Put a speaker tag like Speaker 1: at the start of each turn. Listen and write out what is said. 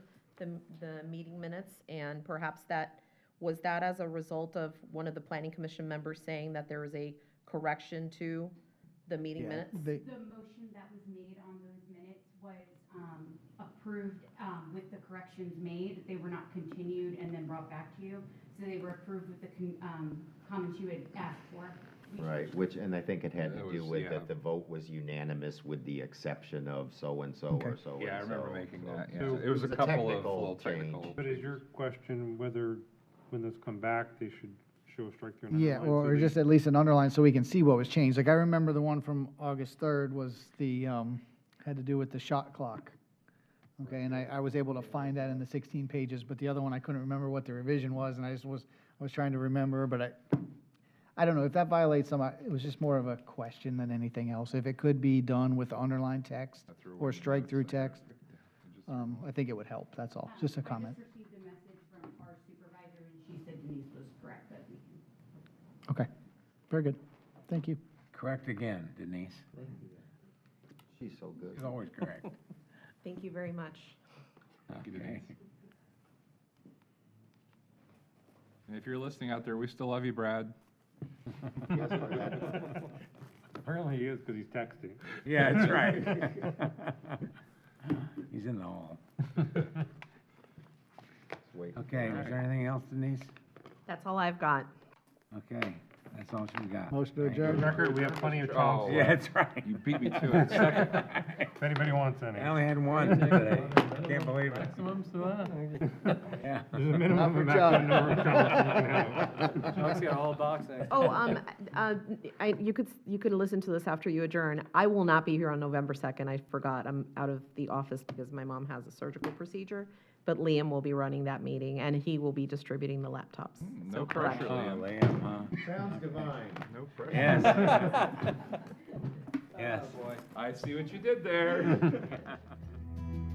Speaker 1: the, the meeting minutes, and perhaps that, was that as a result of one of the planning commission members saying that there was a correction to the meeting
Speaker 2: Yeah,
Speaker 1: minutes?
Speaker 2: They,
Speaker 3: The motion that was made on those minutes was um, approved um, with the corrections made. They were not continued and then brought back to you. So they were approved with the con- um, comments you had asked for. We
Speaker 4: Right, which, and I think it had
Speaker 5: That
Speaker 4: to do
Speaker 5: was-
Speaker 4: with
Speaker 5: yeah.
Speaker 4: that the vote was unanimous with the exception of so-and-so
Speaker 2: Okay.
Speaker 4: or so-and-so.
Speaker 5: Yeah, I remember making
Speaker 4: so-
Speaker 5: that, yeah.
Speaker 6: So
Speaker 5: It was a couple of
Speaker 4: technical
Speaker 5: little
Speaker 4: change.
Speaker 5: technical.
Speaker 6: But is your question whether, when those come back, they should show a strike through? and
Speaker 2: yeah,
Speaker 6: underline so
Speaker 2: or
Speaker 6: they-
Speaker 2: just at least an underline so we can see what was changed. Like, I remember the one from August 3rd was the, um, had to do with the shot clock. Okay, and I, I was able to find that in the 16 pages, but the other one, I couldn't remember what the revision was, and I just was, I was trying to remember, but I, I don't know, if that violates some, I- it was just more of a question than anything else. If it could be done with underlined text or strike-through text, um, I think it would help, that's all,
Speaker 3: Um,
Speaker 2: just a
Speaker 3: I
Speaker 2: comment.
Speaker 3: just received a message from our supervisor, and she said Denise was correct, but we can
Speaker 2: Okay, very good, thank you.
Speaker 7: Correct again, Denise.
Speaker 4: She's so good.
Speaker 7: She's always correct.
Speaker 1: Thank you very much.
Speaker 5: you,
Speaker 7: Okay.
Speaker 5: And if you're listening out there, we still love you, Brad.
Speaker 4: Yes, Brad.
Speaker 6: Apparently he is, because he's texting.
Speaker 7: Yeah, that's right. He's in the hall.
Speaker 4: Just wait.
Speaker 7: Okay, is there anything else, Denise?
Speaker 1: That's all I've got.
Speaker 7: Okay, that's all she got.
Speaker 2: Motion to
Speaker 7: Thank you.
Speaker 6: For the
Speaker 2: adjourn.
Speaker 6: record, we have plenty of
Speaker 5: Oh.
Speaker 6: time.
Speaker 7: Yeah, that's right.
Speaker 5: You beat me to it. Second.
Speaker 6: If anybody wants any.
Speaker 7: I only had one today. Can't believe it. Yeah.
Speaker 6: There's a minimum and
Speaker 2: for
Speaker 6: maximum
Speaker 2: John.
Speaker 6: number of comments you can have.
Speaker 1: Oh, um, uh, I, you could, you could listen to this after you adjourn. I will not be here on November 2nd. I forgot. I'm out of the office because my mom has a surgical procedure. But Liam will be running that meeting and he will be distributing the laptops.
Speaker 5: No
Speaker 1: So correct.
Speaker 5: pressure,
Speaker 7: Oh,
Speaker 5: Liam.
Speaker 7: Liam, huh?
Speaker 4: Sounds divine.
Speaker 5: No pressure.
Speaker 7: Yes. Yes.
Speaker 5: I see what you did there.